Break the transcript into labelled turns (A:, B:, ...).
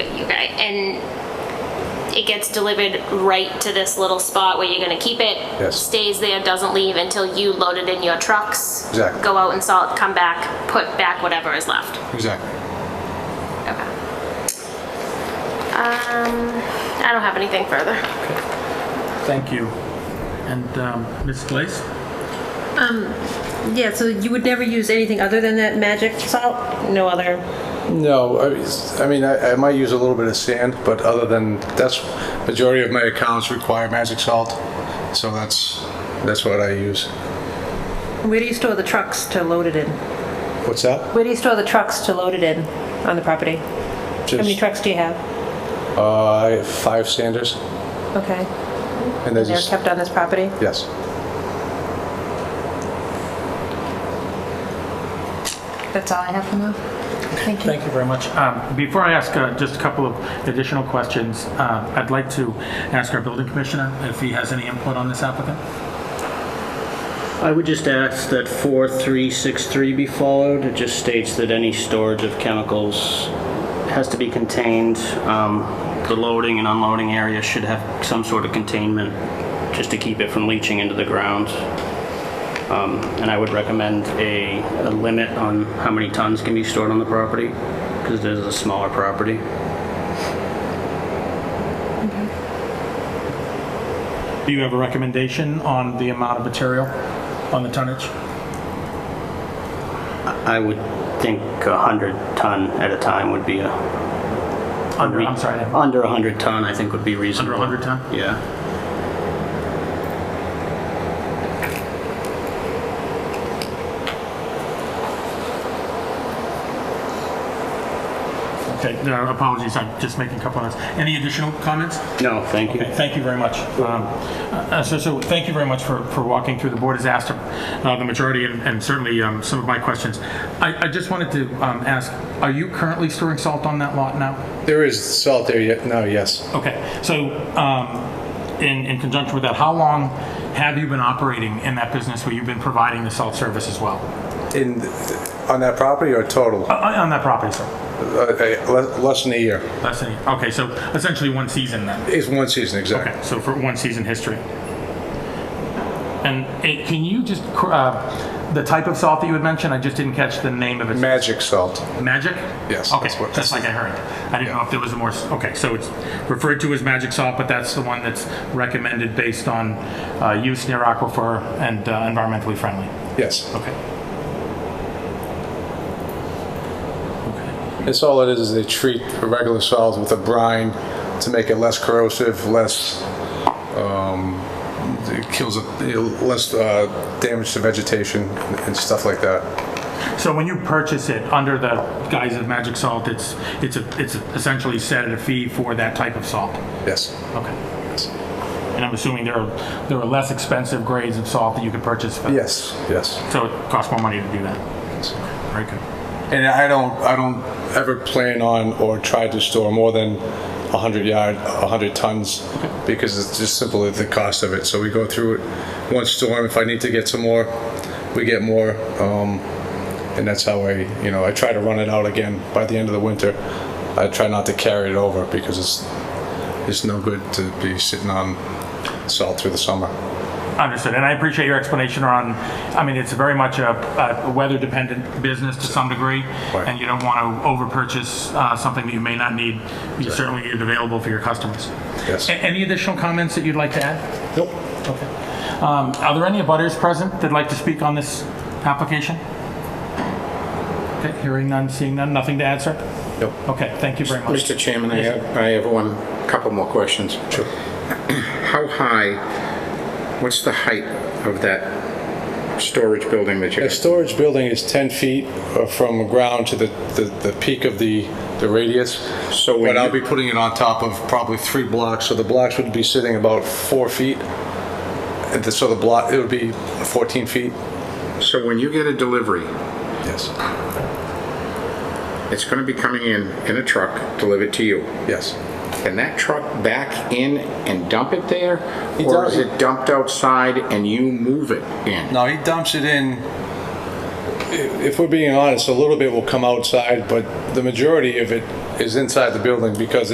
A: Okay, and it gets delivered right to this little spot where you're gonna keep it?
B: Yes.
A: Stays there, doesn't leave until you load it in your trucks?
B: Exactly.
A: Go out and salt, come back, put back whatever is left?
B: Exactly.
A: Okay. Um, I don't have anything further.
C: Thank you. And um, Ms. Glaze?
D: Yeah, so you would never use anything other than that magic salt? No other?
B: No, I mean, s- I mean, I, I might use a little bit of sand, but other than, that's, majority of my accounts require magic salt, so that's, that's what I use.
D: Where do you store the trucks to load it in?
B: What's that?
D: Where do you store the trucks to load it in on the property? How many
B: Just,
D: trucks do you have?
B: uh, I have five sanders,
D: Okay.
B: and there's,
D: They're
B: just-
D: kept on this property?
B: yes.
D: That's all I have for now. Thank you.
C: Thank you very much. Um, Before I ask uh, just a couple of additional questions, uh, I'd like to ask our building commissioner if he has any input on this applicant.
E: I would just ask that 4363 be followed. It just states that any storage of chemicals has to be contained. Um, The loading and unloading area should have some sort of containment, just to keep it from leaching into the ground. Um, And I would recommend a a limit on how many tons can be stored on the property, because it is a smaller property.
C: Do you have a recommendation on the amount of material, on the tonnage?
E: I would think 100 ton at a time would be a...
C: Under, I'm sorry, under
E: Under 100 ton, I think would be reasonable.
C: 100 ton?
E: Yeah.
C: Okay, no, apologies, I'm just making a couple of notes. Any additional comments?
E: No, thank you.
C: Okay, Thank you very much. Um, uh, So, so thank you very much for, for walking through. The board has asked uh, the majority and and certainly um, some of my questions. I, I just wanted to um, ask, are you currently storing salt on that lot now?
B: There is salt there yet, no, yes.
C: Okay, so um, in, in conjunction with that, how long have you been operating in that business where you've been providing the salt service as well?
B: In, on that property or total? Uh,
C: Uh, On that property, sir?
B: uh, le- Less than a year.
C: Less than, a year. okay, so essentially one season then?
B: It's one season, exactly.
C: Okay, so for one season history. And it, can you just, cr- uh, the type of salt that you had mentioned, I just didn't catch the name of it.
B: Magic salt.
C: Magic?
B: Yes,
C: Okay,
B: that's what-
C: just like I heard. I didn't know if there was a more, s- okay, so it's referred to as magic salt, but that's the one that's recommended based on uh, use near aquifer and uh, environmentally friendly.
B: Yes.
C: Okay.
B: It's all it is, is they treat regular salt with a brine to make it less corrosive, less, um, it kills, it- you know, less uh, damage to vegetation and stuff like that.
C: So when you purchase it under the guise of magic salt, it's, it's, a- it's essentially set at a fee for that type of salt?
B: Yes.
C: Okay. And I'm assuming there are, there are less expensive grades of salt that you could purchase? for-
B: Yes, yes.
C: So it costs more money to do that? Very good.
B: And I don't, I don't ever plan on or try to store more than 100 yard, 100 tons because it's just simply the cost of it. So we go through it one storm. If I need to get some more, we get more. Um, and that's how I, you know, I try to run it out again by the end of the winter. I try not to carry it over because it's, it's no good to be sitting on salt through the summer.
C: Understood. And I appreciate your explanation around, I mean, it's very much a, a weather-dependent business to some degree,
B: Right.
C: and you don't want to over-purchase uh, something that you may not need. You certainly need it available for your customers.
B: Yes.
C: A- Any additional comments that you'd like to add?
B: Nope.
C: Okay. Um, Are there any abutters present that'd like to speak on this application? Okay, hearing none, seeing none, nothing to add, sir?
B: Nope.
C: Okay, thank you very much.
F: Mr. Chairman, I have, I have one, couple more questions.
B: Sure.
F: How high, what's the height of that storage building that you
B: The storage building is 10 feet uh, from the ground to the, the the peak of the, the radius.
F: So when
B: But I'll
F: you-
B: be putting it on top of probably three blocks, so the blocks would be sitting about four feet. And the- So the block, it would be 14 feet?
F: So when you get a delivery,
B: Yes.
F: it's going to be coming in, in a truck, delivered to you.
B: Yes.
F: Can that truck back in and dump it there?
B: He
F: Or
B: does-
F: is it dumped outside and you move it in?
B: No, he dumps it in, i- if we're being honest, a little bit will come outside, but the majority of it is inside the building because